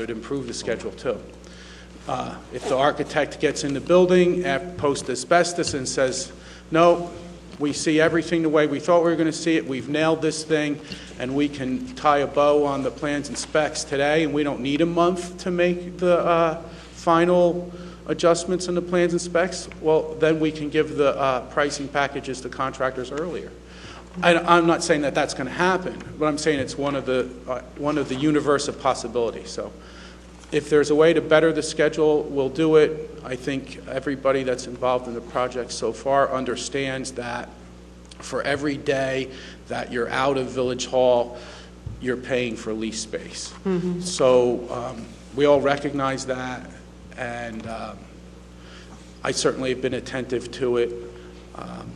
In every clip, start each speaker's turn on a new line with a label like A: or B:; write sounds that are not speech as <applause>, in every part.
A: It would improve the schedule too. Uh, If the architect gets in the building, af- post asbestos and says, no, we see everything the way we thought we were going to see it, we've nailed this thing, and we can tie a bow on the plans and specs today, and we don't need a month to make the uh, final adjustments in the plans and specs, well, then we can give the uh, pricing packages to contractors earlier. I, I'm not saying that that's going to happen, but I'm saying it's one of the, uh, one of the universe of possibilities, so. If there's a way to better the schedule, we'll do it. I think everybody that's involved in the project so far understands that for every day that you're out of Village Hall, you're paying for lease space. So um, we all recognize that, and um, I certainly have been attentive to it. Um,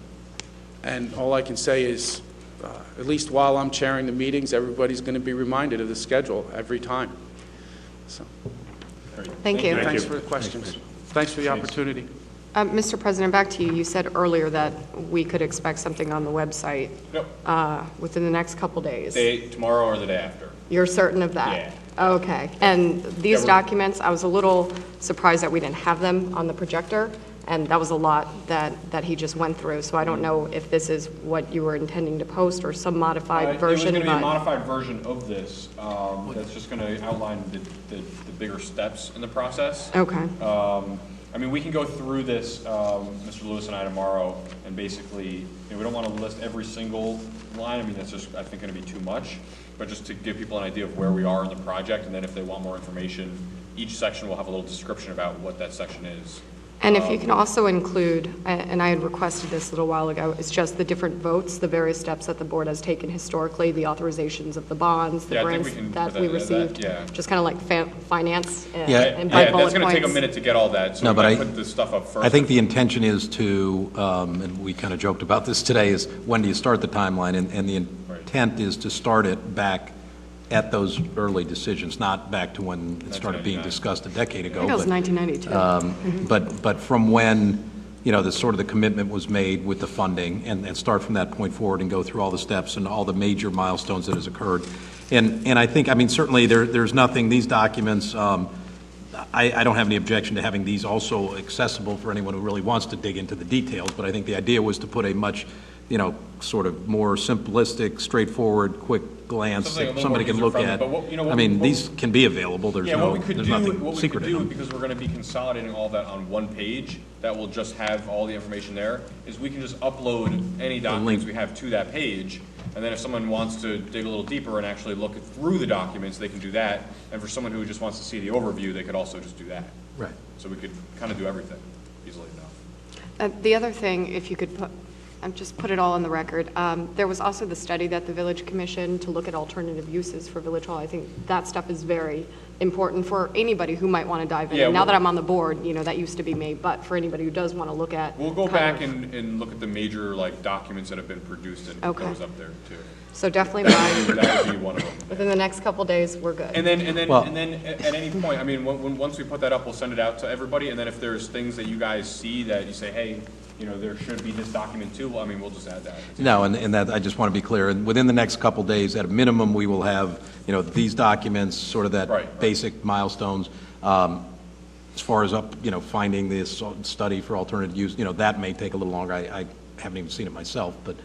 A: And all I can say is, uh, at least while I'm chairing the meetings, everybody's going to be reminded of the schedule every time. So,
B: Thank you.
A: Thanks for the questions. Thanks for the opportunity.
B: Uh, Mr. President, back to you. You said earlier that we could expect something on the website
C: Yep.
B: uh, within the next couple days.
C: Day, tomorrow or the day after.
B: You're certain of that? Okay. And these
C: Government-
B: documents, I was a little surprised that we didn't have them on the projector, and that was a lot that, that he just went through. So I don't know if this is what you were intending to post or some
C: Uh,
B: modified
C: It was
B: version,
C: gonna be a
B: but
C: modified version of this, um, that's just gonna outline the, the, the bigger steps in the process.
B: Okay.
C: Um, I mean, we can go through this, um, Mr. Lewis and I tomorrow, and basically, you know, we don't wanna list every single line, I mean, that's just, I think, gonna be too much. But just to give people an idea of where we are in the project, and then if they want more information, each section will have a little description about what that section is.
B: And if you
C: Um,
B: can also include, a- and I had requested this a little while ago, it's just the different votes, the various steps that the board has taken historically, the authorizations of the bonds, the
C: Yeah, I think
B: grants
C: we can
B: that
C: put
B: we
C: that- that-
B: received.
C: yeah.
B: Just kind of like fa- finance uh,
D: Yeah.
B: and by
C: Yeah, that's
B: bullet
C: gonna take a
B: points.
C: minute to get all that, so
D: No,
C: we
D: but
C: gotta
D: I-
C: put this stuff up first.
D: I think the intention is to, um, and we kind of joked about this today, is when do you start the timeline? And, and the
C: Right.
D: intent is to start it back at those early decisions, not back to when it started being
C: 1999.
D: discussed a decade ago.
B: I think it was
D: but-
B: 1992.
D: Um, But, but from when, you know, the sort of the commitment was made with the funding, and, and start from that point forward and go through all the steps and all the major milestones that has occurred. And, and I think, I mean, certainly, there, there's nothing, these documents, um, I, I don't have any objection to having these also accessible for anyone who really wants to dig into the details, but I think the idea was to put a much, you know, sort of more simplistic, straightforward, quick glance
C: Something a
D: that
C: little
D: somebody
C: more
D: can look
C: user-friendly,
D: at.
C: but what- you know,
D: I
C: what-
D: mean,
C: what-
D: these can be available, there's
C: Yeah, what
D: no,
C: we could
D: there's
C: do,
D: nothing
C: what we could
D: secret in them.
C: do, because we're gonna be consolidating all that on one page, that will just have all the information there, is we can just upload any documents we have to that page, and then if someone wants to dig a little deeper and actually look through the documents, they can do that, and for someone who just wants to see the overview, they could also just do that.
D: Right.
C: So we could kind of do everything easily enough.
B: Uh, The other thing, if you could put, um, just put it all on the record, um, there was also the study that the village commissioned to look at alternative uses for Village Hall. I think that stuff is very important for anybody who might want to dive in.
C: Yeah,
B: And Now
C: we'll-
B: that I'm on the board, you know, that used to be me, but for anybody who does want to look at.
C: We'll go
B: kind
C: back
B: of-
C: and, and look at the major, like, documents that have been produced and
B: Okay.
C: those up there, too.
B: So definitely by,
C: That would be one of them.
B: within the next couple days, we're good.
C: And then, and then,
D: Well-
C: and then, a- at any point, I mean, when, when, once we put that up, we'll send it out to everybody, and then if there's things that you guys see that you say, hey, you know, there should be this document too, well, I mean, we'll just add that.
D: No, and, and that, I just want to be clear, and within the next couple days, at a minimum, we will have, you know, these documents, sort of
C: Right, right.
D: that basic milestones. Um, As far as up, you know, finding this study for alternative use, you know, that may take a little longer. I, I haven't even seen it myself, but,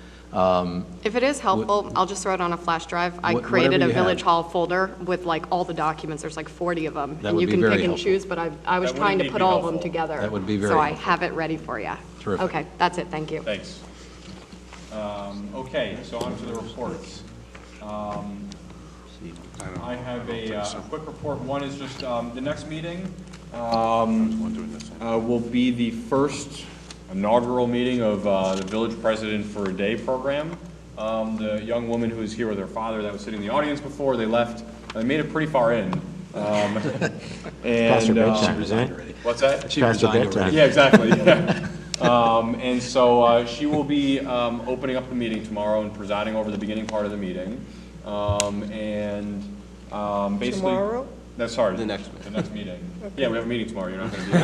B: If it is helpful, I'll just throw it on a flash drive. I
D: Wha-
B: created
D: whatever
B: a
D: you have.
B: Village Hall folder with like all the documents, there's like 40 of them.
D: That
B: and
D: would
B: you
D: be
B: can
D: very
B: pick and
D: helpful.
B: choose. But I, I was
C: That would
B: trying to
C: indeed
B: put
C: be
B: all of them
C: helpful.
B: together.
D: That would be
B: So
D: very
B: I
D: helpful.
B: have it ready for you.
D: Terrific.
B: Okay, that's it, thank you.
C: Thanks. Um, okay, so on to the reports. Um, I have a, uh, a quick report, one is just, um, the next meeting, uh, will be the first inaugural meeting of uh, the Village President for a Day program. Um, The young woman who was here with her father that was sitting in the audience before, they left, they made it pretty far in. Um, <laughs> And, um, what's that?
D: She resigned already.
C: Yeah, exactly, yeah. Um, And so uh, she will be um, opening up the meeting tomorrow and presiding over the beginning part of the meeting. Um, And um, basically. Tomorrow? No, sorry. The next. The next meeting. Yeah, we have a meeting tomorrow, you're not going to be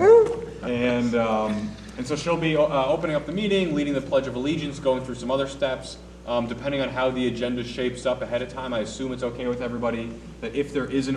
C: there. And, um, and so she'll be, uh, opening up the meeting, leading the Pledge of Allegiance, going through some other steps. Um, depending on how the agenda shapes up ahead of time, I assume it's okay with everybody that if there is an